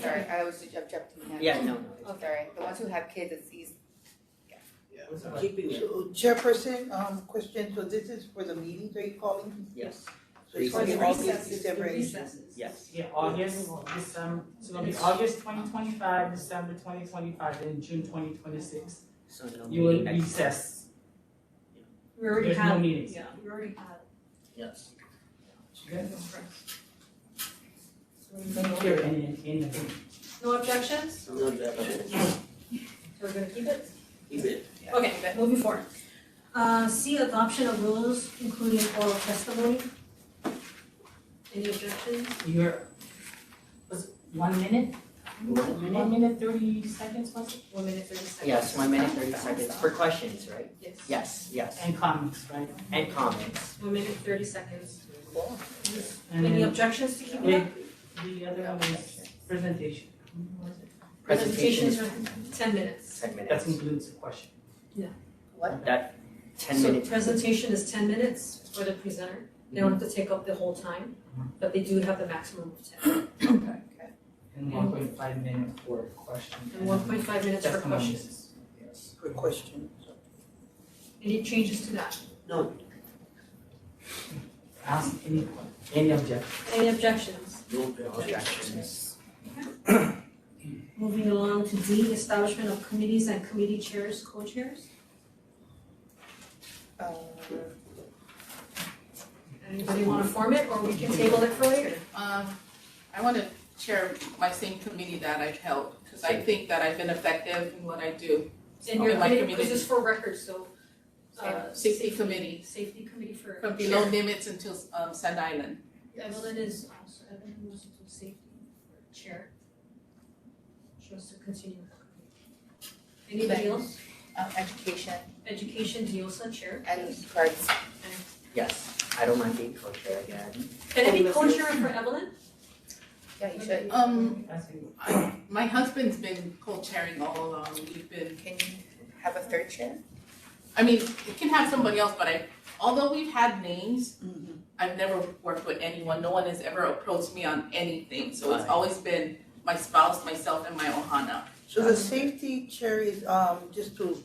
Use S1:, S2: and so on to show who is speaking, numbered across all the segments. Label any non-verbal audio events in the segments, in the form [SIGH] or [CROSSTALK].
S1: sorry, I always ju- jump, jump to the
S2: Yeah, no, no.
S1: I'm Oh, sorry, the ones who have kids, it's these,
S2: Keeping it,
S3: So, Chairperson, um, question, so this is for the meetings, are you calling?
S2: yes,
S3: So it's
S2: Recess.
S3: only August,
S4: Recesses,
S3: December,
S4: the
S3: and-
S4: recesses.
S2: yes.
S5: Yeah, August, December, so it'll be August twenty twenty-five, December twenty twenty-five, and June twenty twenty-six.
S2: So no
S5: You will
S2: meeting next.
S5: recess.
S4: We already
S5: There's no
S4: had,
S5: meetings.
S4: yeah, we already had.
S2: Yes.
S5: Okay?
S4: No-
S5: Here in, in the room.
S4: No objections,
S2: No, definitely,
S4: so we're gonna keep it?
S2: keep it.
S4: Okay, but moving forward. Uh, C, adoption of rules including oral testimony. Any objections?
S5: You're, was it one minute? One minute thirty seconds, was it?
S4: One minute, thirty seconds.
S2: Yes, one minute, thirty seconds, for questions, right?
S4: Yes.
S2: Yes, yes,
S5: And comments, right?
S2: and comments.
S4: One minute, thirty seconds.
S5: And
S4: Any
S5: then
S4: objections to keeping
S5: the,
S4: that?
S5: the other one is presentation.
S2: Presentations,
S4: Presentations are ten minutes.
S2: ten
S5: That
S2: minutes.
S5: includes the question.
S1: what?
S2: That, ten minutes.
S4: So presentation is ten minutes for the presenter, they don't have to take up the whole time, but they do have the maximum of ten.
S2: Okay.
S5: And one point five minutes for question.
S4: And one point five minutes for
S5: testimonies.
S4: questions.
S3: for questions.
S4: Any changes to that?
S5: Ask any, any objection.
S4: Any objections?
S2: Objections.
S4: Moving along to D, establishment of committees and committee chairs, co-chairs.
S1: Uh,
S4: Anybody wanna form it, or we can table it for later?
S6: Um, I want to chair my same committee that I've held, because I think that I've been effective in what I do.
S4: And your
S6: Okay, my
S4: committee, because
S6: committee.
S4: it's for records, so, uh,
S6: Safety committee,
S4: safety committee for.
S6: from below limits until, um, Sand Island.
S4: Evelyn is also, Evelyn was also safety for chair. She wants to continue. Anybody else?
S1: um, education
S4: Education, Diosa, chair.
S1: and cards,
S2: Yes, I don't mind being co-chair again.
S4: Can it be co-chair for Evelyn?
S1: yeah, you should,
S6: Um,
S5: That's it.
S6: I, my husband's been co-chairing all along, we've been,
S1: can you have a third chair?
S6: I mean, it can have somebody else, but I, although we've had names, I've never worked with anyone, no one has ever approached me on anything, so it's
S2: Right.
S6: always been my spouse, myself, and my Ohana.
S3: So the safety chair is, um, just to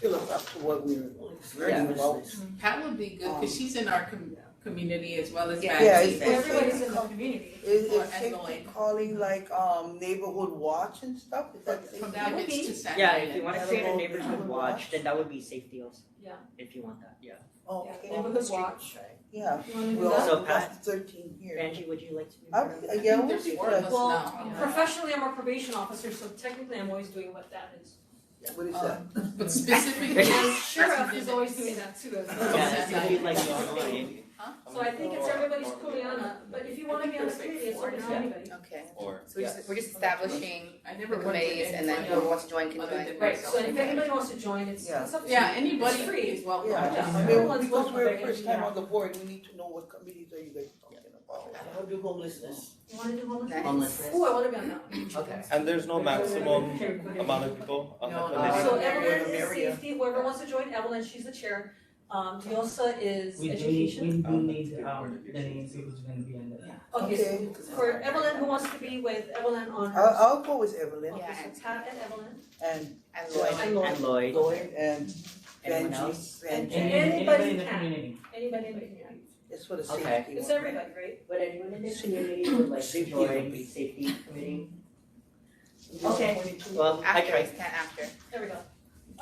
S3: fill us up to what we're learning
S2: Yeah.
S3: about.
S6: Pat would be good because she's in our com- community as well as
S1: Yeah.
S6: Max.
S3: Yeah, it's-
S4: Well, Everybody's in the community.
S3: Is,
S6: Or
S3: is safety
S6: annoying.
S3: calling like, um, neighborhood watch and stuff, is that
S6: From
S3: safety?
S4: that would
S6: Davids
S4: be-
S6: to San
S2: Uh, Yeah,
S6: Diego.
S2: if you wanna create a
S3: Available-
S2: neighborhood watch, then that would be safety also.
S4: Yeah.
S2: If you want that, yeah.
S3: Oh,
S4: Yeah,
S3: okay,
S4: neighborhood watch.
S3: yeah,
S4: You wanna do
S3: well,
S4: that?
S2: So
S3: that's thirteen here.
S2: Angie, would you like to be?
S3: I,
S2: part of
S3: I-
S2: that?
S3: yeah, I would
S6: There's
S3: be
S6: four of
S3: glad.
S6: us
S4: Well,
S6: now.
S4: professionally, I'm a probation officer, so technically I'm always doing what that is.
S3: What
S4: Uh,
S3: is that?
S6: Um, But
S2: [LAUGHS]
S6: specifically, that's
S4: Sheriff is
S6: Davids.
S4: always doing that too as well.
S2: Yeah, if you'd like to join.
S4: So I think it's everybody's Kuleana, but if you wanna be on the committee, it's open to
S2: Yeah.
S4: anybody.
S1: Okay,
S7: Or,
S1: so we're just, we're just establishing
S6: I never
S1: the
S6: worked with
S1: committees and then
S6: anyone
S1: whoever wants to join can
S6: other
S1: join.
S6: than
S4: Right, so if
S6: myself.
S4: anybody wants to join, it's,
S3: Yeah.
S4: it's up to you.
S6: Yeah, anybody
S4: It's free.
S6: is welcome.
S3: Yeah, I
S4: Yeah.
S3: mean, because
S4: Everyone's
S3: we're
S4: welcome.
S3: first time on the board, we need to know what committees are you guys talking about.
S2: I'll do homelessness.
S4: You wanna do one?
S1: Nice.
S2: Homelessness.
S4: Ooh, I wanna be on that one.
S2: Okay.
S7: and there's no maximum amount of people on
S6: No,
S7: the
S6: no.
S7: committee?
S4: So
S3: Uh,
S4: Evelyn is
S3: Maria.
S4: safety, whoever wants to join Evelyn, she's the chair. Um, Diosa is
S5: We do need,
S4: education.
S5: we do
S7: Um,
S5: need,
S7: good
S5: um,
S7: coordination.
S5: the names who's gonna be on the.
S4: Okay, so
S3: Okay. Oh,
S4: for Evelyn, who wants to be with Evelyn on her?
S3: I'll, I'll go with Evelyn
S4: Okay, so Pat and Evelyn.
S3: and
S1: And Lloyd,
S3: Lloyd.
S4: And Lloyd.
S2: And Lloyd,
S3: Lloyd and
S2: anyone
S3: Benji.
S2: else?
S3: Benji.
S5: And
S4: Anybody
S5: anybody in the
S4: can.
S5: community.
S4: Anybody, anybody, yeah.
S3: It's for the
S2: Okay.
S3: safety one.
S4: It's everybody, right?
S2: Would anyone in the community would like to
S3: Safety
S2: join
S3: committee.
S2: safety committee?
S3: Okay.
S2: Well, I
S1: after,
S2: tried,
S1: it's not after.
S4: There we go.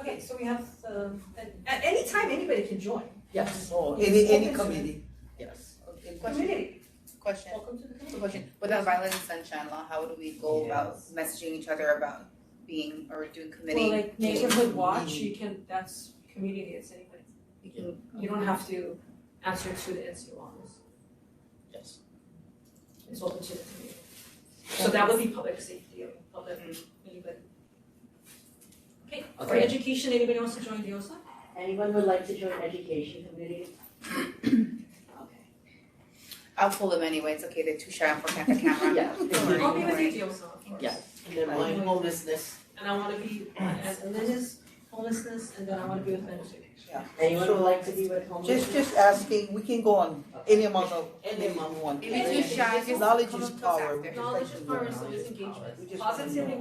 S4: Okay, so we have, um, at, at any time, anybody can join.
S2: yes,
S3: Oh, any, any
S4: Open to-
S3: committee.
S2: yes.
S1: Okay, question,
S4: Community,
S1: question,
S4: welcome to the
S1: So
S4: community.
S1: question, with the violence and sunshine law, how would we go about
S5: Yes.
S1: messaging each other about being or doing committee?
S4: Well, like neighborhood watch, you can, that's community, it's anybody. You can, you don't have to answer to the NCO laws.
S2: Yes.
S4: It's open to the community. So that would be public safety, or public, anybody. Okay, for
S2: Okay.
S4: education, anybody wants to join the OSA?
S2: Anyone would like to join education committee? Okay.
S1: I'll pull them anyway, it's okay, they're too shy for the camera.
S2: Yeah.
S4: I'll be with you, the OSA, of course.
S2: Yeah. And then
S4: mine,
S2: homelessness.
S4: And I wanna be, and Liz is homelessness, and then I wanna be with men.
S2: Anyone would like to be with homeless?
S3: Just, just asking, we can go on any amount of,
S2: Any amount.
S3: one.
S1: Even if you're shy, just
S3: Knowledge
S1: come
S3: is
S1: up to us
S3: power.
S1: after.
S4: Knowledge is power, so is engagement.
S3: We just-
S4: Positive